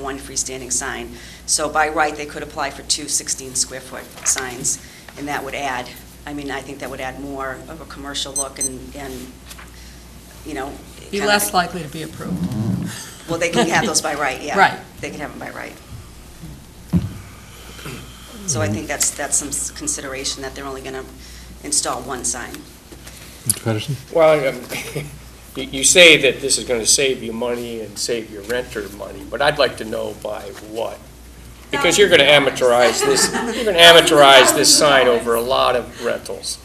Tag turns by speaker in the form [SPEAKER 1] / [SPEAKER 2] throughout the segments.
[SPEAKER 1] one freestanding sign. So by right, they could apply for two 16-square-foot signs, and that would add, I mean, I think that would add more of a commercial look and, and, you know.
[SPEAKER 2] Be
[SPEAKER 1] kinda-
[SPEAKER 2] less likely to be approved.
[SPEAKER 1] Well, they can have those by right, yeah.
[SPEAKER 2] Right.
[SPEAKER 1] They can have them by right. So I think that's, that's some s- consideration, that they're only going to install one sign.
[SPEAKER 3] Mr. Patterson?
[SPEAKER 4] Well, um, you you say that this is going to save you money and save your renter money, but I'd like to know by what? Because you're going to amateurize this, you're going to amateurize this sign over a lot of rentals,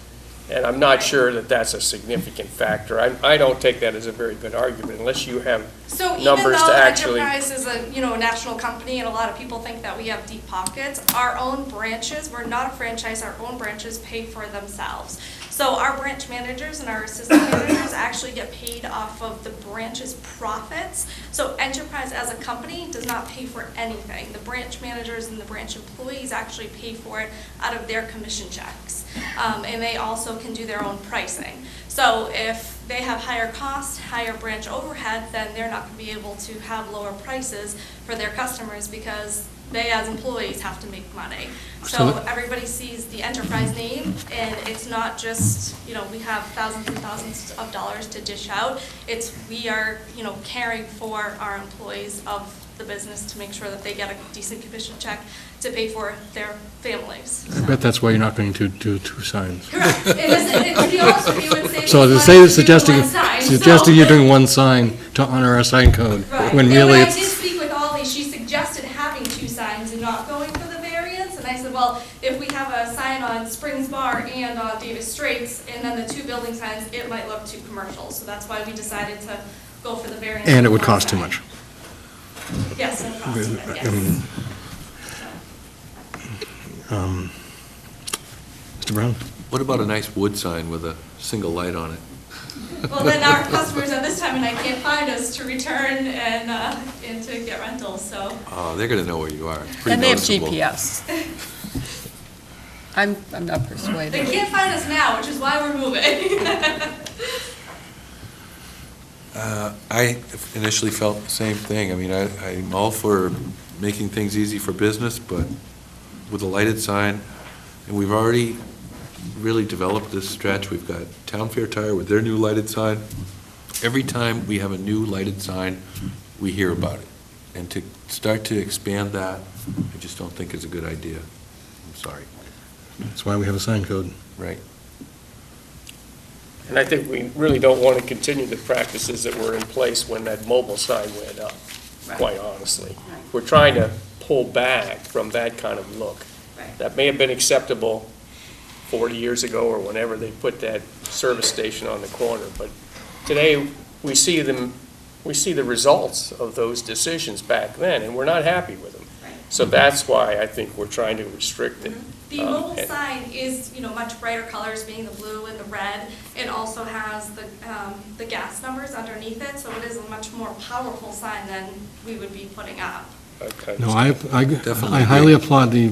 [SPEAKER 4] and I'm not sure that that's a significant factor. I I don't take that as a very good argument unless you have,
[SPEAKER 5] So even
[SPEAKER 4] numbers to
[SPEAKER 5] though
[SPEAKER 4] actually-
[SPEAKER 5] Enterprise is a, you know, a national company and a lot of people think that we have deep pockets, our own branches, we're not a franchise, our own branches pay for themselves. So our branch managers and our assistant managers actually get paid off of the branch's profits. So Enterprise as a company does not pay for anything. The branch managers and the branch employees actually pay for it out of their commission checks. Um, and they also can do their own pricing. So if they have higher costs, higher branch overhead, then they're not going to be able to have lower prices for their customers because they as employees have to make money.
[SPEAKER 3] So
[SPEAKER 5] So
[SPEAKER 3] the-
[SPEAKER 5] everybody sees the enterprise name and it's not just, you know, we have thousands and thousands of dollars to dish out. It's, we are, you know, caring for our employees of the business to make sure that they get a decent commission check to pay for their families.
[SPEAKER 3] I bet that's why you're not going to do two signs.
[SPEAKER 5] Correct. It is, it, to be honest with you, it saves
[SPEAKER 3] So to
[SPEAKER 5] us
[SPEAKER 3] say,
[SPEAKER 5] money to do
[SPEAKER 3] suggesting,
[SPEAKER 5] one sign, so-
[SPEAKER 3] suggesting you're doing one sign to honor our sign code,
[SPEAKER 5] Right.
[SPEAKER 3] when
[SPEAKER 5] And
[SPEAKER 3] really
[SPEAKER 5] I did
[SPEAKER 3] it's,
[SPEAKER 5] speak with Ollie, she suggested having two signs and not going for the variance, and I said, well, if we have a sign on Springs Bar and on Davis Straits, and then the two building signs, it might look too commercial, so that's why we decided to go for the variance.
[SPEAKER 3] and it
[SPEAKER 5] for
[SPEAKER 3] would
[SPEAKER 5] one
[SPEAKER 3] cost too
[SPEAKER 5] sign.
[SPEAKER 3] much.
[SPEAKER 5] Yes, it would cost too much,
[SPEAKER 3] I mean,
[SPEAKER 5] yes.
[SPEAKER 3] um, Mr. Brown?
[SPEAKER 6] What about a nice wood sign with a single light on it?
[SPEAKER 5] Well, then our customers at this time of night can't find us to return and, uh, and to get rentals, so.
[SPEAKER 6] Oh, they're going to know where you are. Pretty
[SPEAKER 2] And they have
[SPEAKER 6] noticeable.
[SPEAKER 2] GPS. I'm, I'm not
[SPEAKER 5] They
[SPEAKER 2] persuaded.
[SPEAKER 5] can't find us now, which is why we're moving.
[SPEAKER 6] Uh, I initially felt the same thing. I mean, I, I'm all for making things easy for business, but with a lighted sign, and we've already really developed this stretch. We've got Town Fair Tire with their new lighted sign. Every time we have a new lighted sign, we hear about it. And to start to expand that, I just don't think is a good idea. I'm sorry.
[SPEAKER 3] That's why we have a sign code.
[SPEAKER 6] Right.
[SPEAKER 4] and I think we really don't want to continue the practices that were in place when that mobile sign went up, quite honestly.
[SPEAKER 1] Right.
[SPEAKER 4] We're trying to pull back from that kind of look.
[SPEAKER 1] Right.
[SPEAKER 4] that may have been acceptable 40 years ago or whenever they put that service station on the corner, but today, we see them, we see the results of those decisions back then, and we're not happy with them.
[SPEAKER 5] Right.
[SPEAKER 4] So that's why I think we're trying to restrict it.
[SPEAKER 5] The
[SPEAKER 4] Um,
[SPEAKER 5] mobile
[SPEAKER 4] and-
[SPEAKER 5] sign is, you know, much brighter colors, being the blue and the red. It also has the, um, the gas numbers underneath it, so it is a much more powerful sign than we would be putting up.
[SPEAKER 4] Okay.
[SPEAKER 3] No, I, I-
[SPEAKER 6] Definitely
[SPEAKER 3] I highly
[SPEAKER 6] agree.
[SPEAKER 3] applaud the,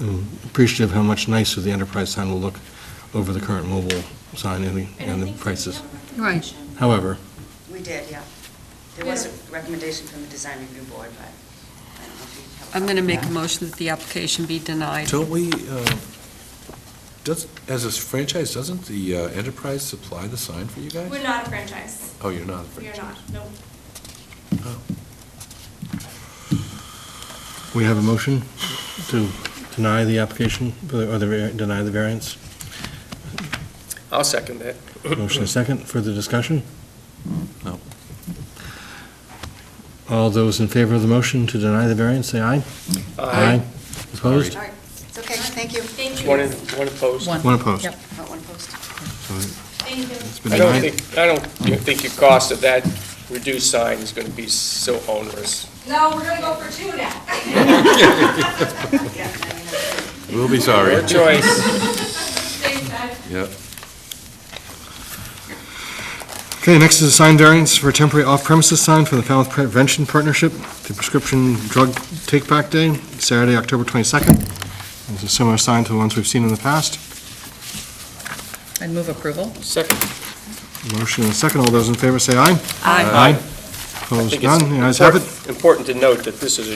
[SPEAKER 3] um, appreciative how much nicer the enterprise sign will look over the current mobile sign and the,
[SPEAKER 5] I
[SPEAKER 3] and the
[SPEAKER 5] think-
[SPEAKER 3] prices.
[SPEAKER 5] Yeah,
[SPEAKER 2] Right.
[SPEAKER 3] However,
[SPEAKER 1] We did, yeah. There was a recommendation from the design review board, but I don't know if you have.
[SPEAKER 2] I'm going to make a motion that the application be denied.
[SPEAKER 6] Don't we, um, does, as a franchise, doesn't the uh, enterprise supply the sign for you guys?
[SPEAKER 5] We're not a franchise.
[SPEAKER 6] Oh, you're not a
[SPEAKER 5] We are
[SPEAKER 6] franchise?
[SPEAKER 5] not, no.
[SPEAKER 6] Oh.
[SPEAKER 3] we have a motion to deny the application, or the, var- deny the variance.
[SPEAKER 4] I'll second that.
[SPEAKER 3] Motion is second, further discussion?
[SPEAKER 6] No.
[SPEAKER 3] All those in favor of the motion to deny the variance, say aye. Opposed?
[SPEAKER 1] All right, it's okay, thank you.
[SPEAKER 5] Thank
[SPEAKER 4] One
[SPEAKER 5] you.
[SPEAKER 4] in- one opposed.
[SPEAKER 3] One opposed.
[SPEAKER 2] Yep.
[SPEAKER 1] About one post.
[SPEAKER 5] Thank you.
[SPEAKER 3] It's been
[SPEAKER 4] I don't
[SPEAKER 3] denied.
[SPEAKER 4] think, I don't think your cost of that reduced sign is going to be so onerous.
[SPEAKER 5] No, we're gonna go for two now.
[SPEAKER 1] Yeah, I mean, that's-
[SPEAKER 6] We'll be sorry.
[SPEAKER 4] Your choice.
[SPEAKER 5] Thanks, guys.
[SPEAKER 6] Yep.
[SPEAKER 3] Okay, next is a sign variance for a temporary off-premises sign for the Falmouth Prevention Partnership, the Prescription Drug Take Back Day, Saturday, October 22nd. It's a similar sign to the ones we've seen in the past.
[SPEAKER 7] I'd move approval.
[SPEAKER 4] Second,
[SPEAKER 3] Motion and second, all those in favor say aye.
[SPEAKER 2] Aye.
[SPEAKER 3] Aye.
[SPEAKER 4] I
[SPEAKER 3] Opposed,
[SPEAKER 4] think it's
[SPEAKER 3] none, the ayes have it.
[SPEAKER 4] important- important to note that this is a